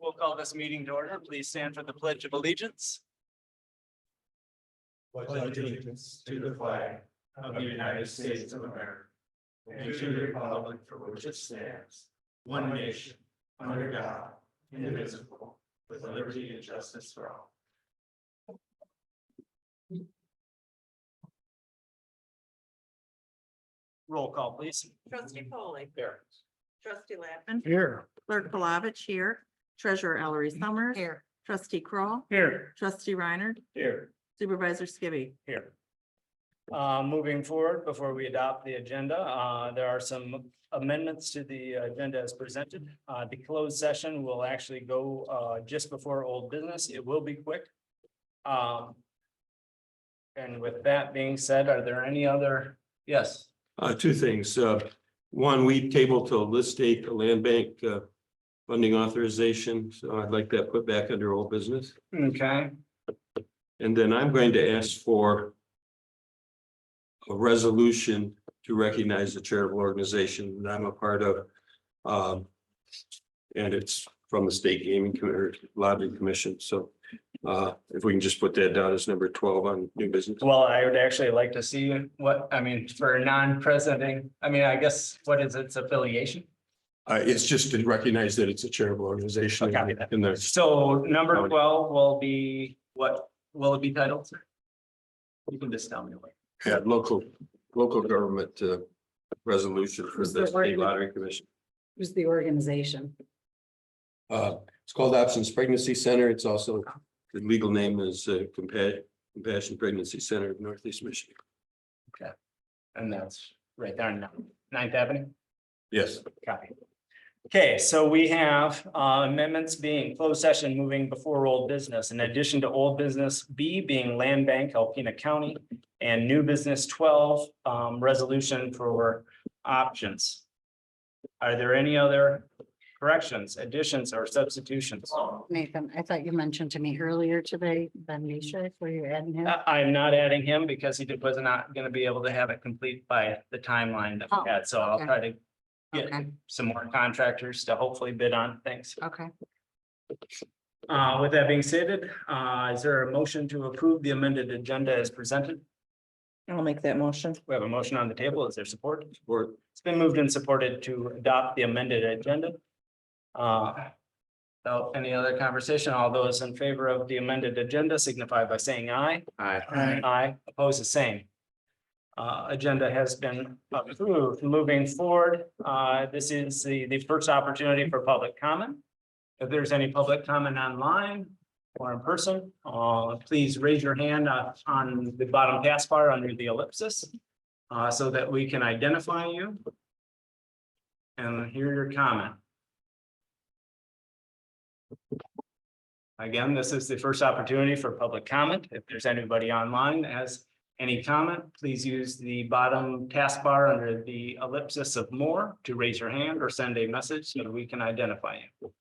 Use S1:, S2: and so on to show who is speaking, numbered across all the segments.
S1: We'll call this meeting to order. Please stand for the pledge of allegiance.
S2: pledge allegiance to the flag of the United States of America and to the republic for which it stands, one nation, under God, indivisible, with liberty and justice for all.
S1: Roll call, please.
S3: Trustee Polly.
S2: Here.
S3: Trustee Lappin. Here. Clerk Palovich here. Treasurer Ellery Summers. Here. Trustee Kroll,
S2: Here.
S3: Trustee Reiner.
S2: Here.
S3: Supervisor Skibby.
S1: Here. Uh, moving forward, before we adopt the agenda, uh, there are some amendments to the agenda as presented. Uh, the closed session will actually go, uh, just before old business. It will be quick. Um. And with that being said, are there any other? Yes.
S4: Uh, two things. Uh, one, we tabled to list date the land bank, uh, funding authorization. So I'd like that put back under old business.
S1: Okay.
S4: And then I'm going to ask for a resolution to recognize the charitable organization that I'm a part of. Um, and it's from the State Gaming Com- or Lottery Commission. So, uh, if we can just put that down as number twelve on new business.
S1: Well, I would actually like to see what, I mean, for non-presenting, I mean, I guess, what is its affiliation?
S4: Uh, it's just to recognize that it's a charitable organization
S1: Okay.
S4: in the
S1: So number
S4: Howdy.
S1: twelve will be what, will it be titled? sir? You can just tell me what.
S4: Yeah, local, local government uh resolution for
S5: Who's the
S4: the state
S5: working-
S4: lottery commission.
S5: Who's the organization?
S4: Uh, it's called Options Pregnancy Center. It's also, the legal name is uh, Compa- Compassion Pregnancy Center of Northeast Michigan.
S1: And that's right there on Ninth Avenue.
S4: Yes.
S1: Copy. Okay, so we have uh, amendments being closed session moving before old business. In addition to old business B being land bank, Alpena County. And new business twelve, um, resolution for options. Are there any other corrections, additions or substitutions?
S5: Nathan, I thought you mentioned to me earlier today, Ben Misha, were you adding him?
S1: I- I'm not adding him because he did- was not gonna be able to have it complete by the timeline that we had, so I'll
S5: Oh, okay.
S1: try to get
S5: Okay,
S1: some more contractors to hopefully bid on things.
S5: okay.
S1: Uh, with that being stated, uh, is there a motion to approve the amended agenda as presented?
S3: I'll make that motion.
S1: We have a motion on the table. Is there support?
S4: Or
S1: It's been moved and supported to adopt the amended agenda. Uh, without any other conversation, all those in favor of the amended agenda signify by saying aye.
S2: Aye.
S1: Aye, oppose the same. Uh, agenda has been approved. Moving forward, uh, this is the, the first opportunity for public comment. If there's any public comment online or in person, uh, please raise your hand uh, on the bottom task bar under the ellipsis. Uh, so that we can identify you. And hear your comment. Again, this is the first opportunity for public comment. If there's anybody online that has any comment, please use the bottom taskbar under the ellipsis of more to raise your hand or send a message so that we can identify you.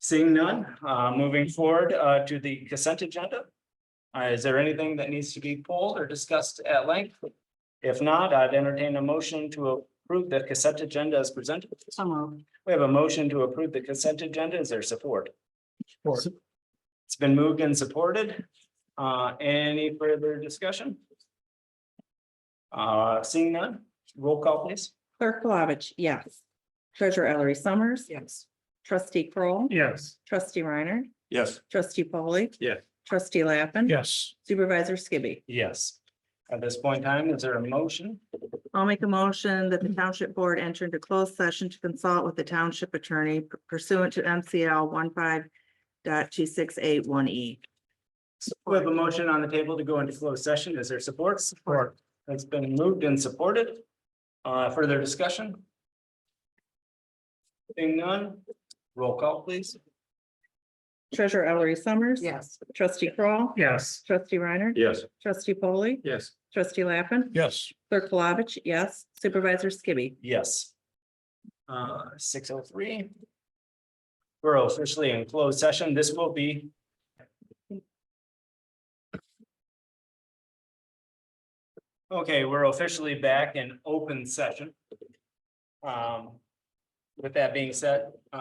S1: Seeing none, uh, moving forward, uh, to the consent agenda. Uh, is there anything that needs to be pulled or discussed at length? If not, I'd entertain a motion to approve the consent agenda as presented.
S5: So moved.
S1: We have a motion to approve the consent agenda. Is there support? It's been moved and supported. Uh, any further discussion? Uh, seeing none, roll call please.
S3: Clerk Palovich, yes. Treasurer Ellery Summers.
S5: Yes.
S3: Trustee Kroll,
S2: Yes.
S3: Trustee Reiner.
S4: yes,
S3: Trustee Polly.
S4: Yes.
S3: Trustee Lappin.
S2: Yes.
S3: Supervisor Skibby.
S1: Yes. At this point in time, is there a motion?
S3: I'll make a motion that the township board enter into closed session to consult with the township attorney pursuant to MCL one five dot two six eight one E.
S1: We have a motion on the table to go into closed session. Is there support? Support. It's been moved and supported. Uh, further discussion? Seeing none, roll call please.
S3: Treasurer Ellery Summers.
S5: Yes.
S3: Trustee Kroll,
S2: Yes.
S3: Trustee Reiner.
S4: yes.
S3: Trustee Polly.
S4: Yes.
S3: Trustee Lappin.
S2: Yes.
S3: Clerk Palovich, yes. Supervisor Skibby.
S1: Yes. Uh, six oh three. We're officially in closed session. This will be. Okay, we're officially back in open session. Um, with that being said,